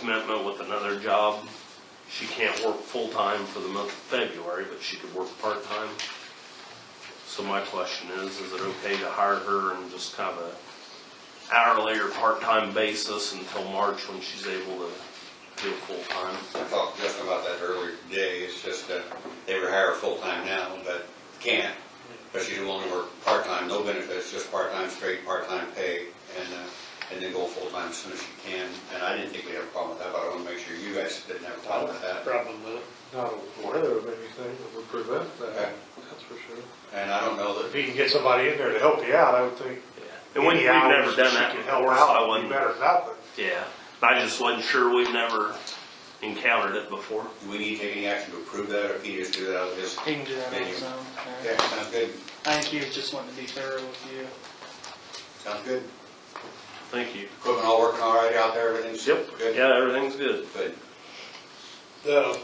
commitment with another job. She can't work full-time for the month of February, but she could work part-time. So my question is, is it okay to hire her and just kind of a hourly or part-time basis until March when she's able to do it full-time? I talked to Justin about that earlier today, it's just that they were hired full-time now, but can't. But she's willing to work part-time, no benefits, just part-time straight, part-time pay, and, uh, and then go full-time as soon as she can. And I didn't think we had a problem with that, but I wanna make sure you guys didn't have a problem with that. problem with it. Not aware of anything that would prevent Okay. that, that's for sure. And I don't know If that, you can get somebody in there to help you out, I would think. And when any we've never hours done she that can help before, so I out would wouldn't. be better than nothing. Yeah, I just wasn't sure, we've never encountered it before. do we need to take any action to approve that, or can you just do that out of his? He can do that on Menu. his own. yeah. Okay, sounds good, I think he was just wanting to be thorough with you. sounds good. Thank you. Equipment all working all right out there, everything's good? Yeah, everything's good. Good. The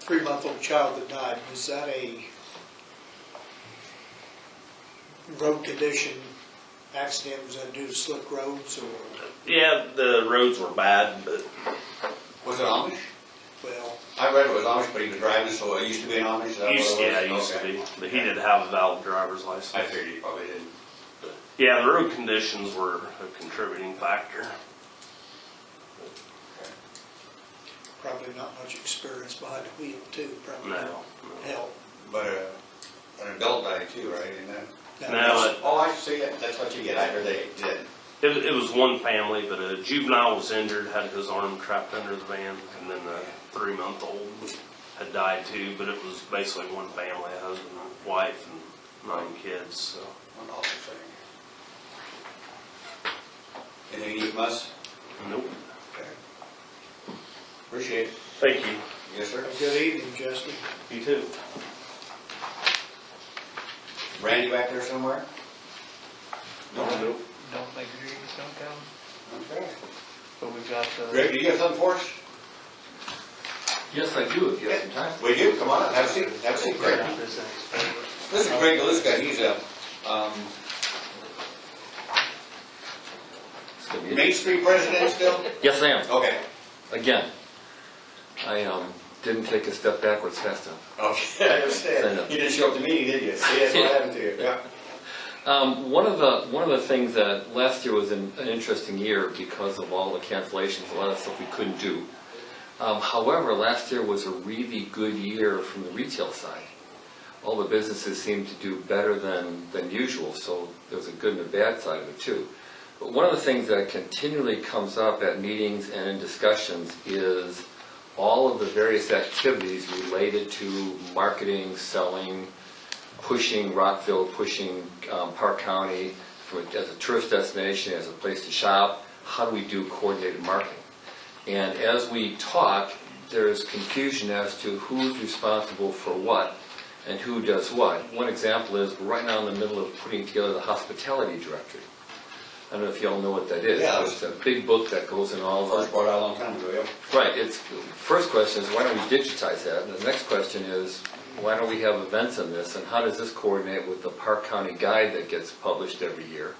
three-month-old child that died, was that a road condition accident? Was that due to slick roads or, Yeah, the roads were bad, but Was it Amish? well, I read it was Amish, but he was driving, so it used to be an Amish, is that what it was? used, Oh, yeah, used to Okay. be, but he did have a valid driver's I license. figured he probably didn't. Yeah, the road conditions were a contributing factor. probably not much experience behind the wheel too, probably. No. Hell. But uh, an adult died too, right, isn't that? No, it- Oh, I see, that- that's what you get, I heard they did. it, it was one family, but a juvenile was injured, had his arm trapped under the van, and then the three-month-old had died too, but it was basically one family, a husband, wife, and nine kids, so. One awful thing. Anything you must? Nope. Okay. Appreciate it. Thank you. Yes, sir. Good evening, Justin. You too. Randy back there somewhere? Nope. Don't think Greaves don't come, Okay. but we've got the, Greg, do you have something for us? Yes, I do, if you have some time. We do, come on, up. have a seat, have a seat, Greg. This is Greg Galuska, he's a, um, It's gonna be- Main Street president still? Yes, I am, Okay. again. I, um, didn't take a step backwards fast enough. Okay, I Stand understand. up. You didn't show up to meeting, did you? See, that's what happened to you, yeah. Um, one of the, one of the things that, last year was an, an interesting year because of all the cancellations, a lot of stuff we couldn't do. Um, however, last year was a really good year from the retail side. All the businesses seemed to do better than, than usual, so there's a good and a bad side of it too. But one of the things that continually comes up at meetings and in discussions is all of the various activities related to marketing, selling, pushing Rockville, pushing um, Park County for, as a tourist destination, as a place to shop. How do we do coordinated marketing? And as we talk, there's confusion as to who's responsible for what and who does what. One example is, we're right now in the middle of putting together the hospitality directory. I don't know if y'all know what that is. Yeah. It's a big book that goes in all the. First brought out a long time ago, yeah. Right, it's, first question is, why don't we digitize that? And the next question is, why don't we have events in this? And how does this coordinate with the Park County Guide that gets published every year?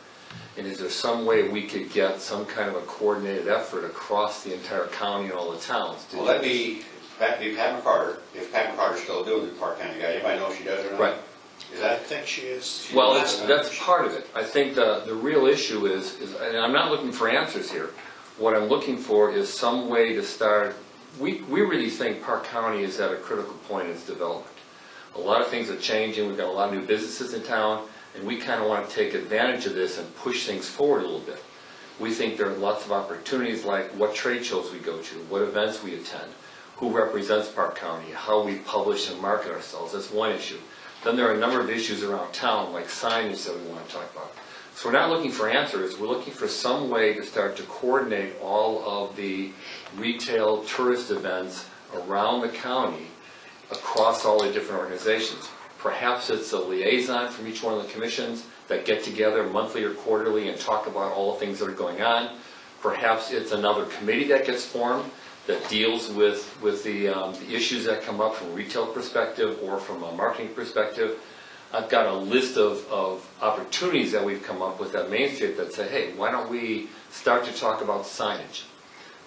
And is there some way we could get some kind of a coordinated effort across the entire county and all the towns? to Well, that'd be, that'd be Pat McCarter, if Pat McCarter's still doing the Park County guy, anybody know if she does or not? Right. Is I that, think she is. Well, it's, that's part of it. I think the, the real issue is, is, and I'm not looking for answers here. What I'm looking for is some way to start, we, we really think Park County is at a critical point in its development. A lot of things are changing, we've got a lot of new businesses in town, and we kind of want to take advantage of this and push things forward a little bit. We think there are lots of opportunities, like what trade shows we go to, what events we attend, who represents Park County, how we publish and market ourselves, that's one issue. Then there are a number of issues around town, like signage that we want to talk about. So we're not looking for answers, we're looking for some way to start to coordinate all of the retail tourist events around the county across all the different organizations. Perhaps it's a liaison from each one of the commissions that get together monthly or quarterly and talk about all the things that are going on. Perhaps it's another committee that gets formed that deals with, with the, um, the issues that come up from a retail perspective or from a marketing perspective. I've got a list of, of opportunities that we've come up with at Main Street that say, hey, why don't we start to talk about signage?